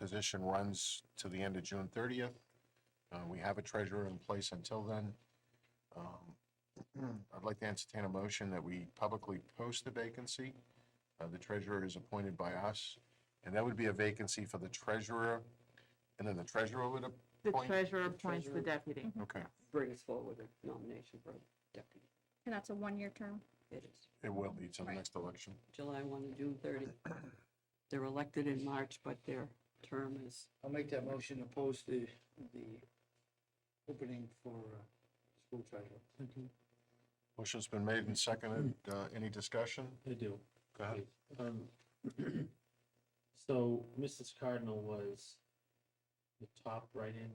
position runs to the end of June thirtieth. Uh, we have a treasurer in place until then. Um, I'd like to entertain a motion that we publicly post the vacancy. Uh, the treasurer is appointed by us, and that would be a vacancy for the treasurer, and then the treasurer would appoint. The Point- treasurer the appoints the treasurer- deputy. Okay, brings forward a nomination for deputy. And that's a one-year term. It is it will be till the next election. July 1 to June 30. They're elected in March, but their term is, I'll make that motion to post the, the opening for uh, school treasurer. Motion's been made and seconded. Uh, any discussion? I do. Go ahead. Um, So Mrs. Cardinal was the top write-in.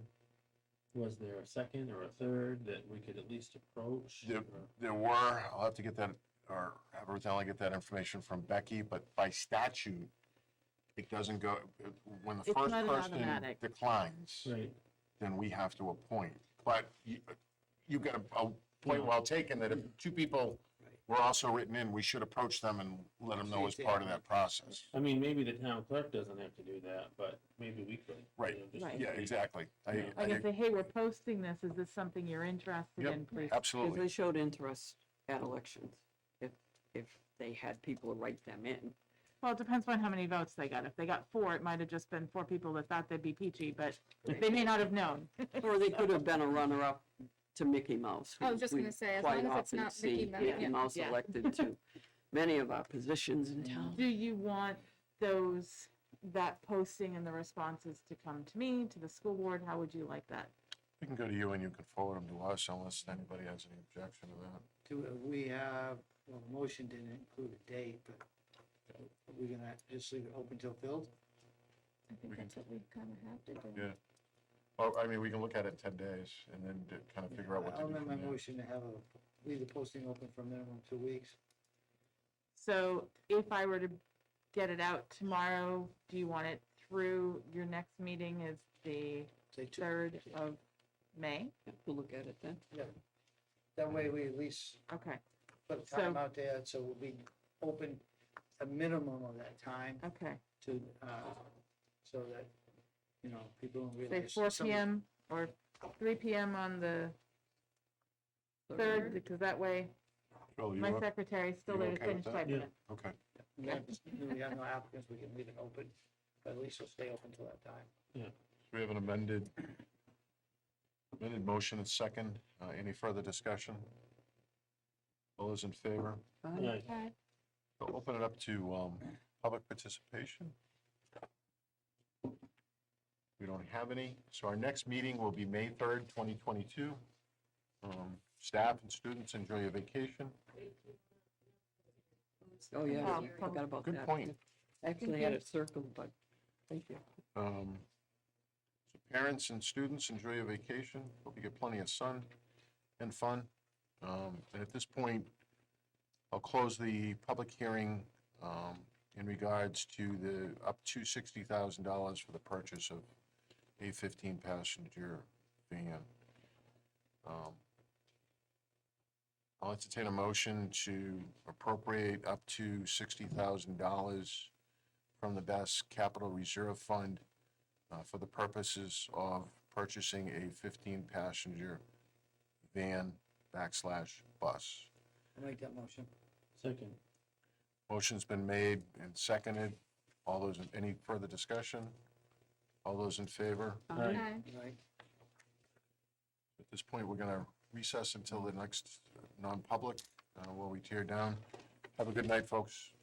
Was there a second or a third that we could at least approach? Yep. or- There were, I'll have to get that, or have her tell, I get that information from Becky, but by statute, it doesn't go, when the It's first not an person automatic. declines, Right, then we have to appoint. But you, you've got a, a point well taken that if two people were also written in, we should approach them and let them know as part of that process. I mean, maybe the town clerk doesn't have to do that, but maybe we could. you Right. know, just- Right. Yeah, exactly. I, Yeah. Like I I, say, hey, we're posting this. Is this something you're interested Yep. in? Please. Oh, because absolutely. they showed interest at elections, if, if they had people write them in. Well, it depends on how many votes they got. If they got four, it might have just been four people that thought they'd be peachy, but they may not have known. Or they could have been a runner-up to Mickey Mouse. I who was just we gonna say, as quite long as it's often not Mickey see Mouse, Mickey yeah. Mouse Yeah. elected to many of our positions in town. Do you want those, that posting and the responses to come to me, to the school board? How would you like that? We can go to you and you can forward them to us unless anybody has any objection to that. Do, we have, well, the motion didn't include a date, but are we gonna just leave it open till filled? I We think can- that's what we kind of have to do. Yeah. Well, I mean, we can look at it in ten days and then d- kind of figure out what to I'll do amend from my there. motion to have a, leave the posting open for a minimum of two weeks. So if I were to get it out tomorrow, do you want it through, your next meeting is the Say two, third of May? We'll look at it then. that way we at least Okay, put a So- time out there, so we'll be open a minimum of that time okay. to, uh, so that, you know, people don't Say realize. four some- PM or three PM on the third, because that way Bill, you my up? secretary's still you there to okay with finish that? typing Yeah. it. Okay. We have, we have no applicants, we can leave it open, but at least it'll stay open till that time. We have an amended, amended motion and second. Uh, Any further discussion? All those in favor? Fine. right. But We'll Open it up to um, public participation. We don't have any, so our next meeting will be May 3rd, 2022. Um, Staff and students enjoy your vacation. Oh, yeah, Oh, forgot about that. Good point. Actually had it circled, but, thank you. Um, so Parents and students, enjoy your vacation. Hope you get plenty of sun and fun. Um, And at this point, I'll close the public hearing um, in regards to the up to $60,000 for the purchase of a 15-passenger van. Um, I'll entertain a motion to appropriate up to $60,000 from the Bass Capital Reserve Fund uh, for the purposes of purchasing a 15-passenger van backslash bus. I'll make that motion. Second, Motion's been made and seconded. All those, any further discussion? All those in favor? Aye. Aye. Right. At this point, we're going to recess until the next non-public uh, while we tear down. Have a good night, folks.